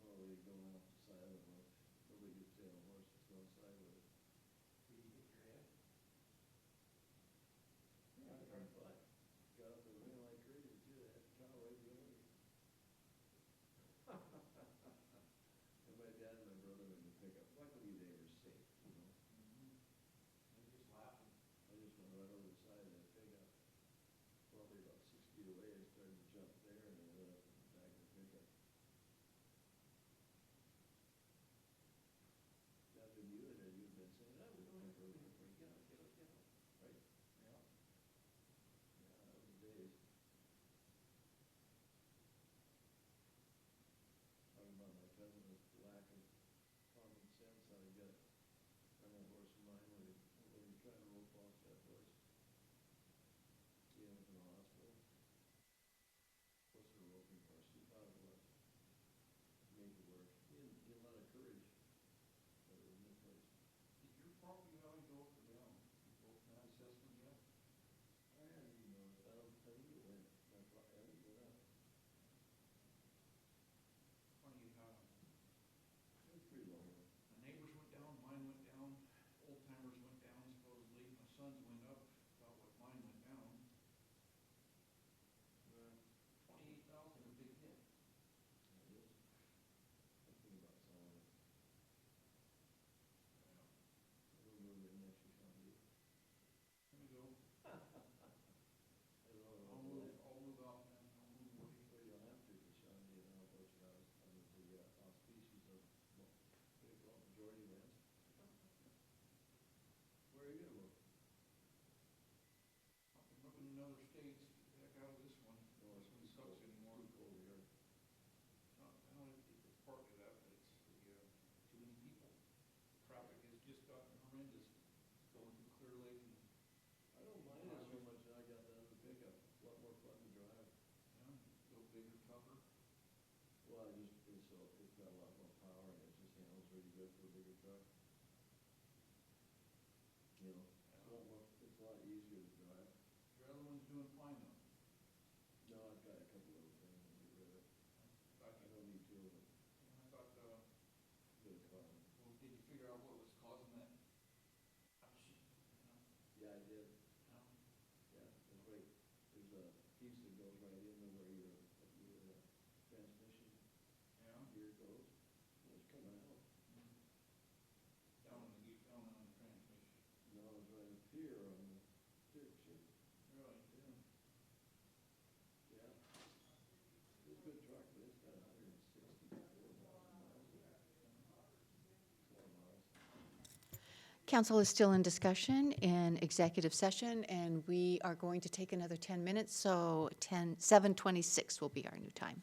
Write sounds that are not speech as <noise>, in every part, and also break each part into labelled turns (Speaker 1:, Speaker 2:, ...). Speaker 1: going off the side of the road, nobody could stay on a horse that's going sideways.
Speaker 2: Did you hit your head?
Speaker 1: Yeah, I heard what? Got up and ran like crazy too, that cow right behind <laughs> me. And my dad and my brother were in the pickup, luckily they were safe, you know?
Speaker 2: You're just laughing.
Speaker 1: I just went right over the side of that pickup, probably about six feet away, I started to jump there and I went up and back of the pickup. Now, if you had, you'd been saying, oh, we don't have room here, we get out, get out, get out, right?
Speaker 2: Yeah.
Speaker 1: Yeah, that was the days. Talking about my cousin's lack of common sense, how he got on a horse of mine when he, when he tried to rope off that horse. He ended up in the hospital. Horse a roping horse, he thought it was. Made it work. He didn't, he had a lot of courage, but it was misplaced.
Speaker 2: Did your property value go up or down? Go up and assessment yet?
Speaker 1: I don't even know, I don't, I think it went, my, pro- I think it went up.
Speaker 2: Funny, uh,
Speaker 1: It was pretty long.
Speaker 2: my neighbors went down, mine went down, old timers went down supposedly, my sons went up, about what mine went down. But twenty-eight thousand, a big hit.
Speaker 1: It is. Thinking about selling it. It'll move in next year, probably.
Speaker 2: Here we go.
Speaker 1: I don't know.
Speaker 2: I'll move, I'll move out and I'll move away.
Speaker 1: Well, you'll have to, because Sean did an outbush house, I mean, the, uh, all species of, well, they call it majority lands. Where are you gonna move?
Speaker 2: I've been looking in other states, get the heck out of this one. This one sucks anymore.
Speaker 1: Too cold here.
Speaker 2: Not, I don't know if it's part of that, but it's the, uh, too many people. Traffic has just gotten horrendous going through Clear Lake and,
Speaker 1: I don't mind it so much, that I got that other pickup, a lot more fun to drive.
Speaker 2: you know, go bigger, tougher.
Speaker 1: Well, I just, it's, uh, it's got a lot more power, and it just handles really good for a bigger truck. You know, it's a lot more, it's a lot easier to drive.
Speaker 2: Your other one's doing fine though.
Speaker 1: No, I've got a couple of things to get rid of.
Speaker 2: I
Speaker 1: I don't need two of them,
Speaker 2: I thought, uh,
Speaker 1: get a car.
Speaker 2: well, did you figure out what was causing that? Oh, shit, you know,
Speaker 1: Yeah, I did,
Speaker 2: you know,
Speaker 1: yeah, it's right, there's a piece that goes right into where your, your uh, transmission
Speaker 2: Yeah.
Speaker 1: gear goes, and it's coming out.
Speaker 2: Down on the, gear- down on the transmission.
Speaker 1: No, it's right up here on the steering shift.
Speaker 2: Really?
Speaker 1: Yeah. Yeah. It's a good truck, but it's got a hundred and sixty-four thousand miles. Four miles.
Speaker 3: Council is still in discussion in executive session, and we are going to take another 10 minutes, so 10, 7:26 will be our new time.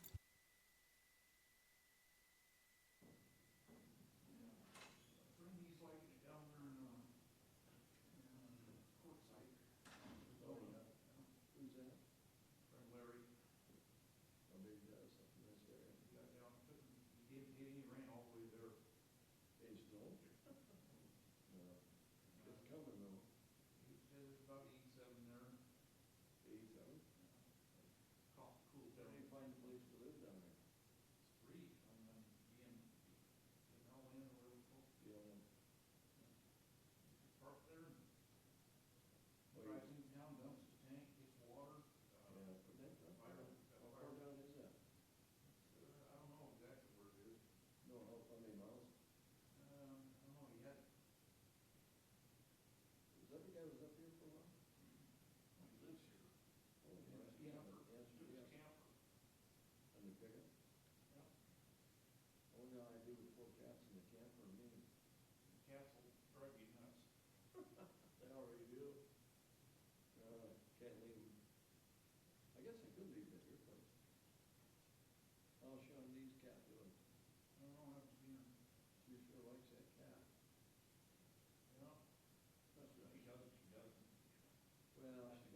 Speaker 2: Bring these like down there in, uh, in, uh, Quartzsite.
Speaker 1: Oh, yeah. Who's that?
Speaker 2: Or Larry,
Speaker 1: Oh, maybe that's something that's there.
Speaker 2: he got down, couldn't, he didn't get any rain all the way there.
Speaker 1: It's no. No, it's
Speaker 2: Uh,
Speaker 1: coming though.
Speaker 2: He said it's about eighty-seven there.
Speaker 1: Eight, seven.
Speaker 2: Cough, cool
Speaker 1: How do
Speaker 2: down.
Speaker 1: you find a place to live down there?
Speaker 2: It's free on, um, being, in Allen or whatever it's called.
Speaker 1: You know,
Speaker 2: Park there,
Speaker 1: Well,
Speaker 2: drives
Speaker 1: you-
Speaker 2: in town, dumps his tank, gets water, uh,
Speaker 1: yeah, but that's not far.
Speaker 2: Byron-
Speaker 1: How far down is that?
Speaker 2: uh, I don't know exactly where it is.
Speaker 1: No, how, how many miles?
Speaker 2: Um, I don't know, he had
Speaker 1: Is that the guy who was up here for a while?
Speaker 2: He lives here.
Speaker 1: Oh,
Speaker 2: He was a
Speaker 1: yeah.
Speaker 2: camper.
Speaker 1: Yes,
Speaker 2: He was a
Speaker 1: yes.
Speaker 2: camper.
Speaker 1: On the pickup? Oh, no, I do with four cats in the camper, I mean,
Speaker 2: Cats will drive you nuts.
Speaker 1: they already do. Uh, can't leave them. I guess I could leave them at your place. How's Sean Dee's cat doing?
Speaker 2: I don't know how to be, in-
Speaker 1: She sure likes that cat.
Speaker 2: you know,
Speaker 1: That's
Speaker 2: he
Speaker 1: right.
Speaker 2: doesn't, he doesn't.
Speaker 1: Well, she